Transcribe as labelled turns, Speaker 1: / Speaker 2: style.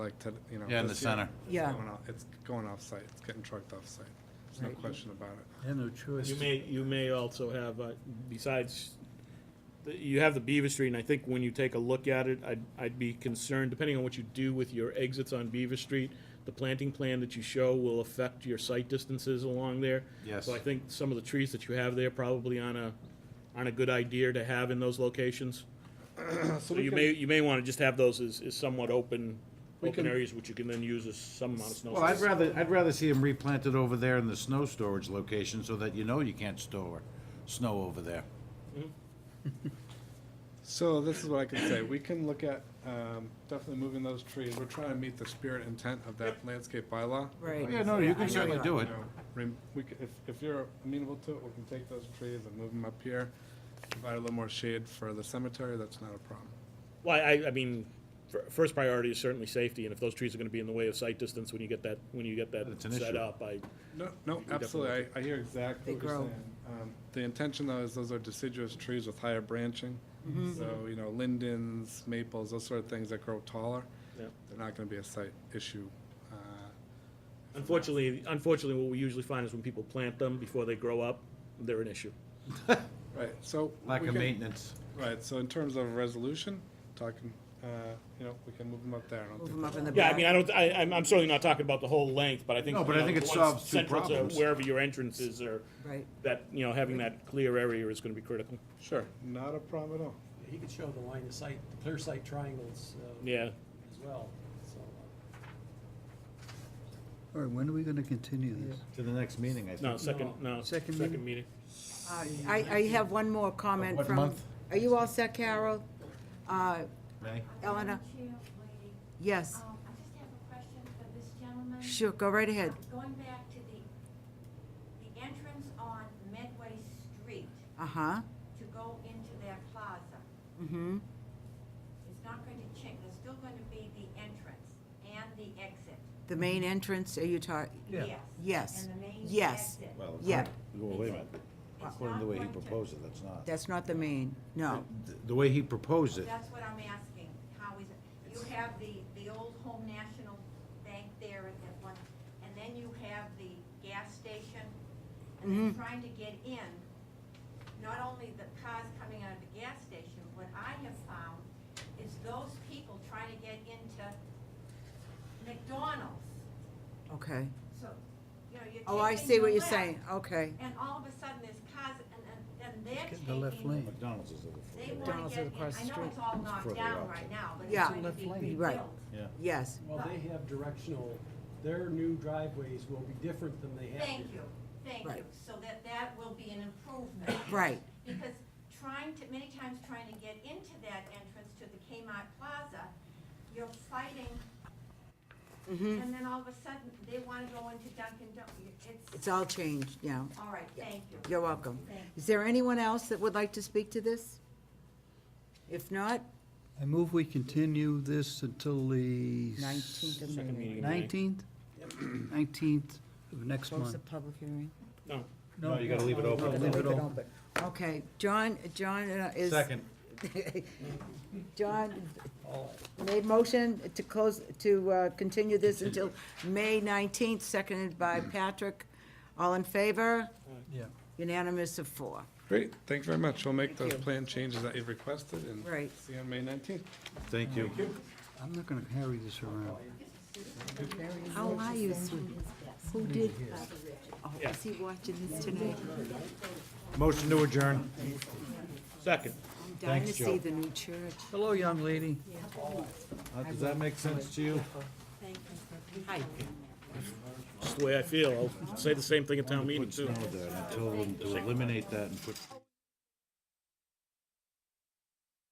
Speaker 1: like, to, you know.
Speaker 2: Yeah, in the
Speaker 1: this year,
Speaker 2: center.
Speaker 1: it's
Speaker 3: Yeah.
Speaker 1: going off- It's going off-site, it's getting trucked off-site, there's no
Speaker 3: Right.
Speaker 1: question about it.
Speaker 4: They have no choice.
Speaker 5: You may, you may also have, uh, besides, the- you have the Beaver Street, and I think when you take a look at it, I'd, I'd be concerned, depending on what you do with your exits on Beaver Street, the planting plan that you show will affect your site distances along there.
Speaker 2: Yes.
Speaker 5: So I think some of the trees that you have there probably aren't a, aren't a good idea to have in those locations. So
Speaker 1: we
Speaker 5: you
Speaker 1: can-
Speaker 5: may, you may wanna just have those as, as somewhat open,
Speaker 1: We
Speaker 5: open
Speaker 1: can-
Speaker 5: areas, which you can then use as some amount of snow.
Speaker 2: Well, I'd
Speaker 5: storage.
Speaker 2: rather, I'd rather see them replanted over there in the snow storage location so that you know you can't store snow over there.
Speaker 1: So this is what I can say, we can look at, um, definitely moving those trees, we're trying to meet the spirit intent of that landscape bylaw.
Speaker 3: Right.
Speaker 1: Like I
Speaker 2: Yeah, no, you
Speaker 3: Yeah,
Speaker 2: can
Speaker 3: I know
Speaker 2: certainly
Speaker 3: that.
Speaker 2: do it.
Speaker 1: know, rem- we c- If, if you're amenable to it, we can take those trees and move them up here, provide a little more shade for the cemetery, that's not a problem.
Speaker 5: Well, I, I mean, fir- first priority is certainly safety, and if those trees are gonna be in the way of sight distance when you get that, when you get that
Speaker 2: That's an
Speaker 5: set
Speaker 2: issue.
Speaker 5: up, I,
Speaker 1: No, no,
Speaker 5: definitely
Speaker 1: absolutely, I, I hear exactly
Speaker 3: They
Speaker 1: what you're
Speaker 3: grow.
Speaker 1: saying. Um, The intention though is those are deciduous trees with higher branching,
Speaker 3: Mm-hmm.
Speaker 1: so, you know, lindens, maples, those sort of things that grow taller.
Speaker 5: Yeah.
Speaker 1: They're not gonna be a site issue. Uh,
Speaker 5: unfortunately, unfortunately, what we usually find is when people plant them before they grow up, they're an issue.
Speaker 1: Right, so.
Speaker 2: Lack
Speaker 1: we
Speaker 2: of
Speaker 1: can-
Speaker 2: maintenance.
Speaker 1: Right, so in terms of resolution, talking, uh, you know, we can move them up there. I don't
Speaker 3: Move
Speaker 1: think
Speaker 3: them up in the
Speaker 5: Yeah,
Speaker 3: back.
Speaker 5: I mean, I don't, I, I'm, I'm certainly not talking about the whole length, but I think.
Speaker 2: No, but
Speaker 5: you
Speaker 2: I
Speaker 5: know,
Speaker 2: think it
Speaker 5: the ones
Speaker 2: solves two
Speaker 5: central to
Speaker 2: problems.
Speaker 5: Wherever your entrance is, or
Speaker 3: Right.
Speaker 5: that, you know, having that clear area is gonna be critical.
Speaker 1: Sure, not a problem at all.
Speaker 6: He could show the line of sight, the clear sight triangles uh,
Speaker 5: Yeah,
Speaker 6: as well, so. uh,
Speaker 4: All right, when are we gonna continue this?
Speaker 2: To the next meeting, I
Speaker 5: no,
Speaker 2: think.
Speaker 5: second, no,
Speaker 4: Second
Speaker 5: second meeting.
Speaker 3: Uh, I, I have one more comment
Speaker 2: What
Speaker 3: from.
Speaker 2: month?
Speaker 3: Are you all set, Carol? Uh,
Speaker 2: May?
Speaker 3: Eleanor?
Speaker 7: Madam Chair, lady,
Speaker 3: Yes,
Speaker 7: um, I just have a question for this gentleman.
Speaker 3: sure, go right ahead.
Speaker 7: Um, Going back to the, the entrance on Medway Street
Speaker 3: Uh-huh,
Speaker 7: to go into their plaza,
Speaker 3: mm-hmm,
Speaker 7: it's not going to change, there's still going to be the entrance and the exit.
Speaker 3: the main entrance, are you talking?
Speaker 4: Yeah.
Speaker 7: Yes.
Speaker 3: Yes.
Speaker 7: And the main
Speaker 3: Yes.
Speaker 7: exit.
Speaker 2: Well,
Speaker 3: Yeah.
Speaker 2: Well, wait a minute.
Speaker 7: It's
Speaker 2: According to the
Speaker 7: not
Speaker 2: way he
Speaker 7: going to-
Speaker 2: proposed it, that's not.
Speaker 3: That's not the main, no.
Speaker 2: The- The way he proposed it,
Speaker 7: That's what I'm asking, how is it, you have the, the old Home National Bank there at that one, and then you have the gas station, and then
Speaker 3: Mhm.
Speaker 7: trying to get in, not only the cars coming out of the gas station, what I have found is those people trying to get into McDonald's,
Speaker 3: Okay.
Speaker 7: so, you know, you're taking
Speaker 3: Oh, I see
Speaker 7: the
Speaker 3: what you're
Speaker 7: left,
Speaker 3: saying, okay.
Speaker 7: And all of a sudden, there's cars, and, and, and they're
Speaker 4: Get
Speaker 7: taking.
Speaker 4: in the left lane.
Speaker 2: McDonald's is over for
Speaker 7: They
Speaker 2: the
Speaker 7: want
Speaker 3: McDonald's
Speaker 7: to
Speaker 3: is
Speaker 7: get, in.
Speaker 3: across the
Speaker 7: I know it's
Speaker 3: street.
Speaker 7: all
Speaker 2: further
Speaker 7: knocked down
Speaker 2: out.
Speaker 7: right now, but it's
Speaker 3: Yeah.
Speaker 7: going to
Speaker 4: Left
Speaker 7: be
Speaker 4: lane.
Speaker 7: rebuilt.
Speaker 3: Right.
Speaker 2: Yeah.
Speaker 3: Yes,
Speaker 6: Well, they have directional, their new driveways will be different than they have.
Speaker 7: Thank
Speaker 6: here.
Speaker 7: you, thank
Speaker 3: Right.
Speaker 7: you. So that, that will be an improvement.
Speaker 3: right,
Speaker 7: Because trying to, many times trying to get into that entrance to the Kmart Plaza, you're fighting,
Speaker 3: mm-hmm.
Speaker 7: and then all of a sudden, they want to go into Dunkin' Donuts.
Speaker 3: It's
Speaker 7: It's,
Speaker 3: all changed now.
Speaker 7: all right, thank you.
Speaker 3: You're welcome.
Speaker 7: Thank
Speaker 3: Is there anyone else that would like to speak to this? If not,
Speaker 4: I move we continue this until the.
Speaker 3: nineteenth of
Speaker 5: Second
Speaker 3: May.
Speaker 5: meeting.
Speaker 4: Nineteenth? Nineteenth of next
Speaker 3: Close
Speaker 4: month.
Speaker 3: the public hearing.
Speaker 5: No,
Speaker 2: No, you gotta leave it open.
Speaker 4: Leave it open.
Speaker 3: Okay, John, John uh, is.
Speaker 2: Second.
Speaker 3: John made motion to close, to uh, continue this until May 19th, seconded by Patrick. All in favor?
Speaker 4: Yeah.
Speaker 3: Unanimous of four.
Speaker 1: Great, thank you very much. We'll make
Speaker 3: Thank
Speaker 1: those
Speaker 3: you.
Speaker 1: plan changes that you've requested and
Speaker 3: Right.
Speaker 1: see you on May nineteenth.
Speaker 2: Thank you.
Speaker 4: I'm not gonna carry this around.
Speaker 3: How are you, sweetie? Who did? Oh,
Speaker 5: Yeah.
Speaker 3: is he watching this tonight?
Speaker 2: Motion to adjourn.
Speaker 5: second.
Speaker 3: I'm dying to
Speaker 2: Thanks,
Speaker 3: see
Speaker 2: Joe.
Speaker 3: the new church.
Speaker 4: Hello, young lady.
Speaker 2: Uh, Does that make sense to you?
Speaker 3: Hi.
Speaker 5: That's the way I feel. I'll say the same thing at town meeting,
Speaker 2: Put
Speaker 5: too.
Speaker 2: snow there until, to eliminate that and put.